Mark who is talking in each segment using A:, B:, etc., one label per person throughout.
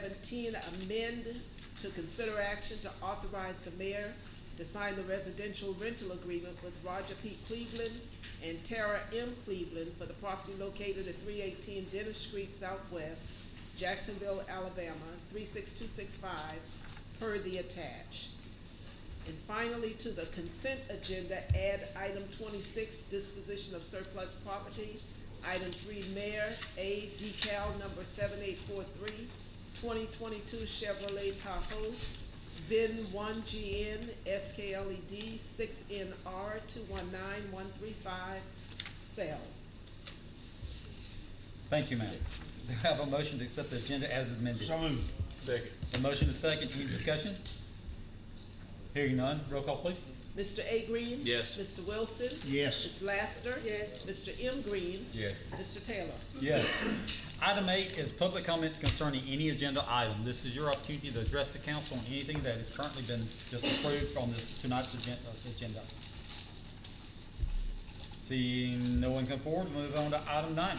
A: seventeen, amend to consider action to authorize the mayor to sign the residential rental agreement with Roger P. Cleveland and Tara M. Cleveland for the property located at three eighteen Dennis Street Southwest, Jacksonville, Alabama, three six two six five, per the attached. And finally, to the consent agenda, add item twenty-six, disposition of surplus property. Item three, mayor, A decal number 7843, 2022 Chevrolet Tahoe, VIN one GN SKLED E six NR two one nine one three five, sale.
B: Thank you, ma'am. Do I have a motion to accept the agenda as amended?
C: So moved.
D: Second.
B: A motion to second, any discussion? Hearing none, roll call please.
A: Mr. A Green?
D: Yes.
A: Mr. Wilson?
C: Yes.
A: Ms. Laster?
E: Yes.
A: Mr. M Green?
D: Yes.
A: Mr. Taylor?
B: Yes. Item eight is public comments concerning any agenda item. This is your opportunity to address the council on anything that has currently been just approved on this, tonight's agen- uh, agenda. Seeing no one come forward, we'll move on to item nine.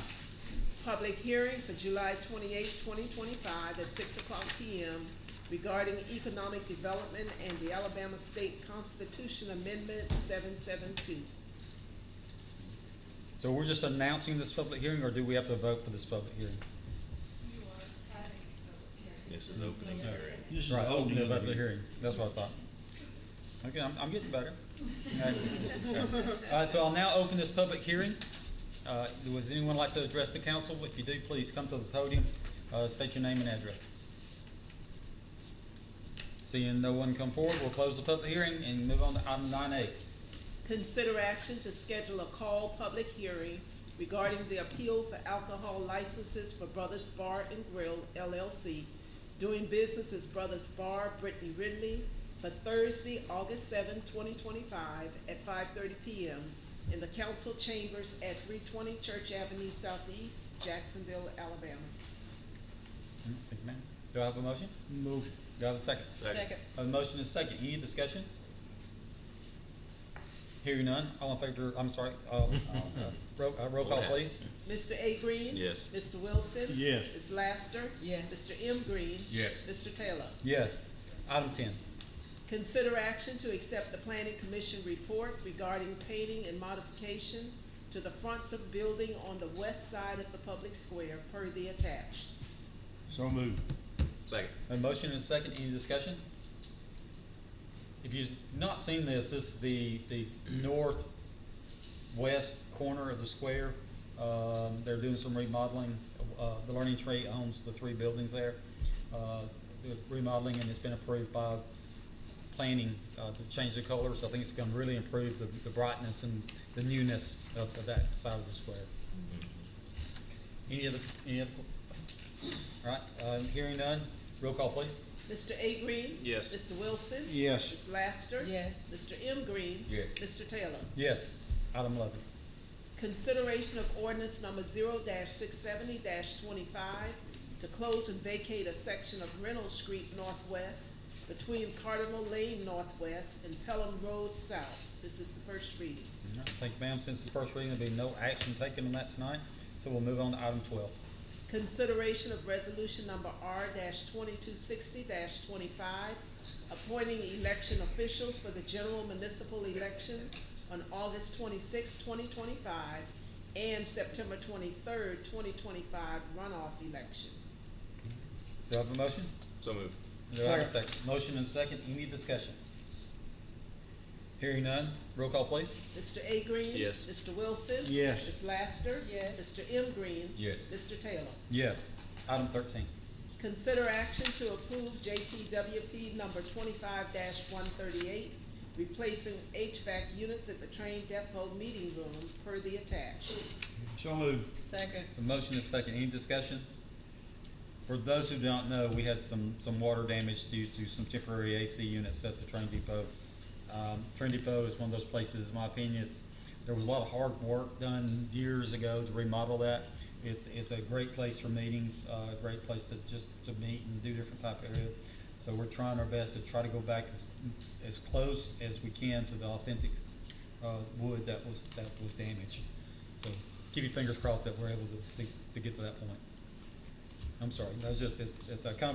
A: public hearing for July 28, 2025, at 6 o'clock PM regarding economic development and the Alabama State Constitution Amendment 772.
B: So we're just announcing this public hearing, or do we have to vote for this public hearing?
E: You are having a public hearing.
D: This is opening hearing.
C: This is
B: Right,
C: the
B: oh,
C: opening
B: no,
C: of
B: about
C: the
B: the
C: hearing.
B: hearing, that's what I thought. Okay, I'm, I'm getting better. All right, so I'll now open this public hearing. Uh, Does anyone like to address the council? If you do, please come to the podium, uh, state your name and address. Seeing no one come forward, we'll close the public hearing and move on to item nine A. Hmm,
A: Consider action to schedule a call public hearing regarding the appeal for alcohol licenses for Brothers Bar and Grill LLC, doing business as Brothers Bar Brittany Ridley, for Thursday, August 7, 2025, at 5:30 PM in the council chambers at 320 Church Avenue Southeast, Jacksonville, Alabama.
B: Hmm, Thank you, ma'am. Do I have a motion?
C: Motion.
B: Do I have a second?
D: Second.
B: A motion is second. Any discussion? Hearing none. All in favor, I'm sorry, uh, uh, roll, uh, roll call, please.
A: Mr. A. Green?
D: Yes.
A: Mr. Wilson?
C: Yes.
A: Ms. Laster?
E: Yes.
A: Mr. M. Green?
D: Yes.
A: Mr. Taylor?
B: Yes. Item ten.
A: Consider action to accept the planning commission report regarding painting and modification to the fronts of building on the west side of the public square per the attached.
C: So moved.
D: Second.
B: A motion and a second. Any discussion? If you've not seen this, this is the, the northwest corner of the square. Um, they're doing some remodeling. Uh, the Learning Tree owns the three buildings there. Uh, they're remodeling and it's been approved by planning, uh, to change the colors. I think it's gonna really improve the, the brightness and the newness of, of that side of the square. Any other, any other? All right, uh, hearing none, roll call please.
A: Mr. A. Green?
D: Yes.
A: Mr. Wilson?
C: Yes.
A: Ms. Laster?
E: Yes.
A: Mr. M. Green?
D: Yes.
A: Mr. Taylor?
B: Yes, item eleven.
A: Consideration of ordinance number zero six seventy twenty-five to close and vacate a section of Reynolds Street Northwest between Cardinal Lane Northwest and Pelham Road South. This is the first reading.
B: All right, Thank you, ma'am. Since it's first reading, there'll be no action taken on that tonight, so we'll move on to item twelve.
A: Consideration of resolution number R twenty-two sixty twenty-five, appointing election officials for the general municipal election on August 26, twenty twenty-five, and September twenty-third, twenty twenty-five runoff election.
B: Do I have a motion?
D: So moved.
B: Do I have a second? Motion and second, any discussion? Hearing none, roll call please.
A: Mr. A. Green?
D: Yes.
A: Mr. Wilson?
C: Yes.
A: Ms. Laster?
E: Yes.
A: Mr. M. Green?
D: Yes.
A: Mr. Taylor?
B: Yes. Item thirteen.
A: Consider action to approve JPWP number twenty-five one thirty-eight, replacing HVAC units at the train depot meeting room per the attached.
C: So moved.
E: Second.
B: The motion is second, any discussion? For those who don't know, we had some, some water damage due to some temporary AC units at the train depot. Um, train depot is one of those places, in my opinion, it's, there was a lot of hard work done years ago to remodel that. It's, it's a great place for meetings, uh, a great place to just, to meet and do different type of area. So we're trying our best to try to go back as, as close as we can to the authentic, uh, wood that was, that was damaged. So keep your fingers crossed that we're able to, to, to get to that point. I'm sorry, that's just, it's, it's a combination